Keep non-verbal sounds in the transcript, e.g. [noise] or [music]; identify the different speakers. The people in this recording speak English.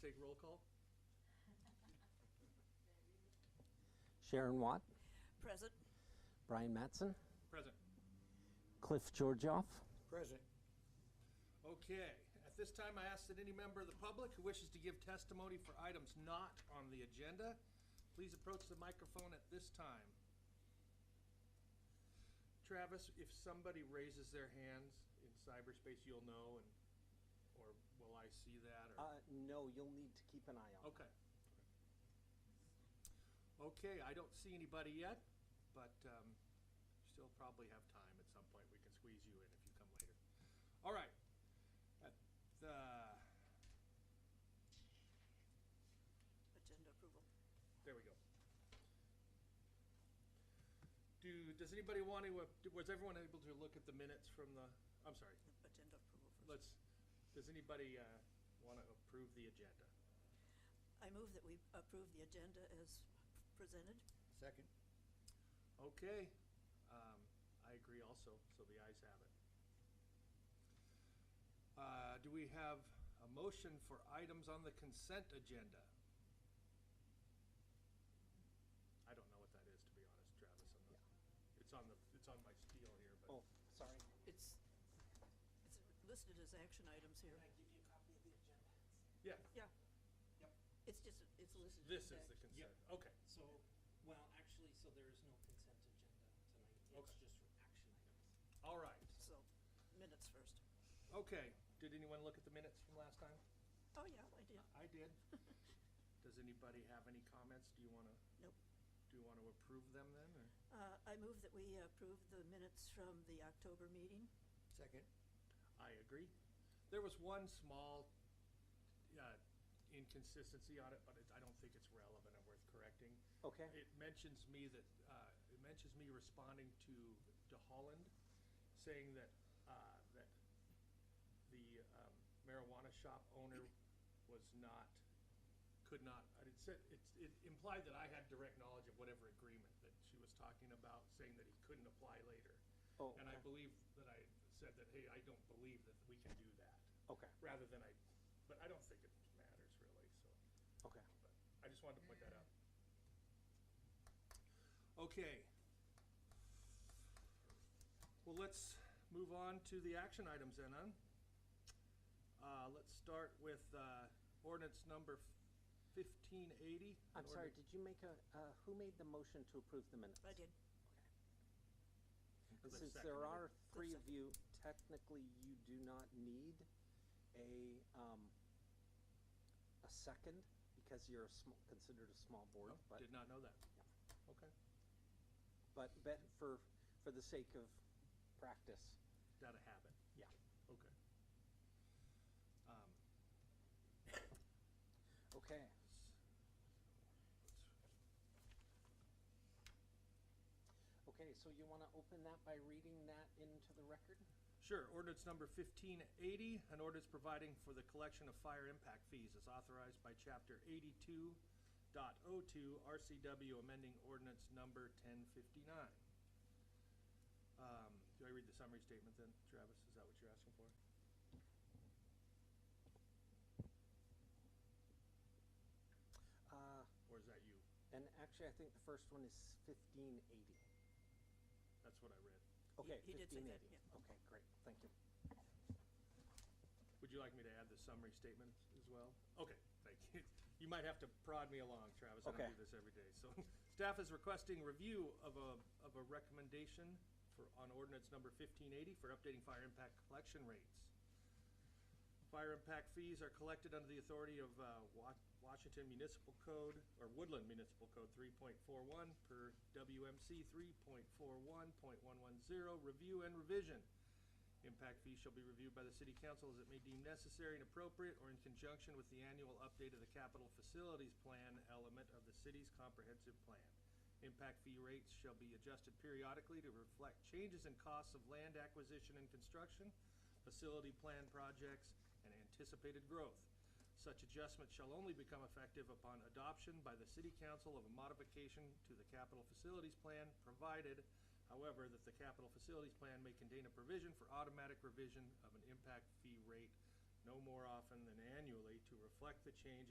Speaker 1: take roll call?
Speaker 2: Sharon Watt,
Speaker 3: Present.
Speaker 2: Brian Matson,
Speaker 1: Present.
Speaker 2: Cliff Georgioff.
Speaker 4: Present.
Speaker 1: Okay, at this time, I ask that any member of the public who wishes to give testimony for items not on the agenda, please approach the microphone at this time. Travis, if somebody raises their hands in cyberspace, you'll know, and, or will I see that, or?
Speaker 2: Uh, no, you'll need to keep an eye on.
Speaker 1: Okay. Okay, I don't see anybody yet, but um, still probably have time at some point. We can squeeze you in if you come later. All right. At the-
Speaker 3: Agenda approval.
Speaker 1: There we go. Do, does anybody want to, uh, was everyone able to look at the minutes from the, I'm sorry,
Speaker 3: Agenda approval first.
Speaker 1: let's, does anybody uh, want to approve the agenda?
Speaker 3: I move that we approve the agenda as presented.
Speaker 4: Second.
Speaker 1: Okay, um, I agree also, so the ayes have it. Uh, do we have a motion for items on the consent agenda? I don't know what that is, to be honest, Travis, I'm not, it's on the, it's on my steel here, but.
Speaker 2: Oh, sorry.
Speaker 3: It's, it's listed as action items here.
Speaker 1: Yeah,
Speaker 3: Yeah.
Speaker 5: Yep.
Speaker 3: It's just, it's listed.
Speaker 1: this
Speaker 3: as
Speaker 1: is the consent,
Speaker 3: act-
Speaker 1: okay,
Speaker 5: So, well, actually, so there is no consent agenda tonight. It's
Speaker 1: Okay.
Speaker 5: just action items.
Speaker 1: all right,
Speaker 3: So, minutes first.
Speaker 1: okay. Did anyone look at the minutes from last time?
Speaker 3: Oh, yeah, I did.
Speaker 1: I did. [laughs] Does anybody have any comments? Do you wanna,
Speaker 3: Nope.
Speaker 1: do you wanna approve them then, or?
Speaker 3: Uh, I move that we approve the minutes from the October meeting.
Speaker 4: Second.
Speaker 1: I agree. There was one small uh, inconsistency on it, but it- I don't think it's relevant and worth correcting.
Speaker 2: Okay.
Speaker 1: It mentions me that, uh, it mentions me responding to DeHolland, saying that, uh, that the um, marijuana shop owner was not, could not, I didn't say, it it implied that I had direct knowledge of whatever agreement that she was talking about, saying that he couldn't apply later.
Speaker 2: Oh,
Speaker 1: And I
Speaker 2: okay.
Speaker 1: believe that I said that, hey, I don't believe that we can do that.
Speaker 2: Okay.
Speaker 1: Rather than I, but I don't think it matters really, so,
Speaker 2: Okay.
Speaker 1: but I just wanted to point that out. Okay. Well, let's move on to the action items then, huh? Uh, let's start with, uh, ordinance number fifteen eighty.
Speaker 2: I'm sorry, did you make a, uh, who made the motion to approve the minutes?
Speaker 3: I did.
Speaker 2: And
Speaker 1: Cliff
Speaker 2: Since
Speaker 1: seconded
Speaker 2: there
Speaker 1: it.
Speaker 2: are three of
Speaker 3: seconded.
Speaker 2: you, technically you do not need a, um, a second because you're a small, considered a small board,
Speaker 1: No,
Speaker 2: but.
Speaker 1: Oh, Did not know that.
Speaker 2: Yeah.
Speaker 1: Okay.
Speaker 2: But, but for, for the sake of practice,
Speaker 1: Got a habit.
Speaker 2: yeah.
Speaker 1: Okay. Um,
Speaker 2: Okay. Okay, so you want to open that by reading that into the record?
Speaker 1: Sure, ordinance number fifteen eighty, an ordinance providing for the collection of fire impact fees is authorized by chapter 82.02 RCW, amending ordinance number ten fifty-nine. Um, do I read the summary statement then, Travis? Is that what you're asking for?
Speaker 2: Uh,
Speaker 1: Or is that you?
Speaker 2: and actually, I think the first one is fifteen eighty.
Speaker 1: That's what I read.
Speaker 2: Okay,
Speaker 3: he did say
Speaker 2: fifteen
Speaker 3: that,
Speaker 2: eighty.
Speaker 3: yeah.
Speaker 2: Okay, great, thank you.
Speaker 1: Would you like me to add the summary statement as well? Okay, thank you. [laughs] You might have to prod me along, Travis. I don't
Speaker 2: Okay.
Speaker 1: do this every day. So [laughs] staff is requesting review of a, of a recommendation for, on ordinance number fifteen eighty for updating fire impact collection rates. Fire impact fees are collected under the authority of uh, Wa- Washington Municipal Code, or Woodland Municipal Code 3.41 per WMC 3.41.110, review and revision. Impact fees shall be reviewed by the city council as it may deem necessary and appropriate, or in conjunction with the annual update of the capital facilities plan element of the city's comprehensive plan. Impact fee rates shall be adjusted periodically to reflect changes in costs of land acquisition and construction, facility plan projects, and anticipated growth. Such adjustment shall only become effective upon adoption by the city council of a modification to the capital facilities plan, provided, however, that the capital facilities plan may contain a provision for automatic revision of an impact fee rate no more often than annually to reflect the change in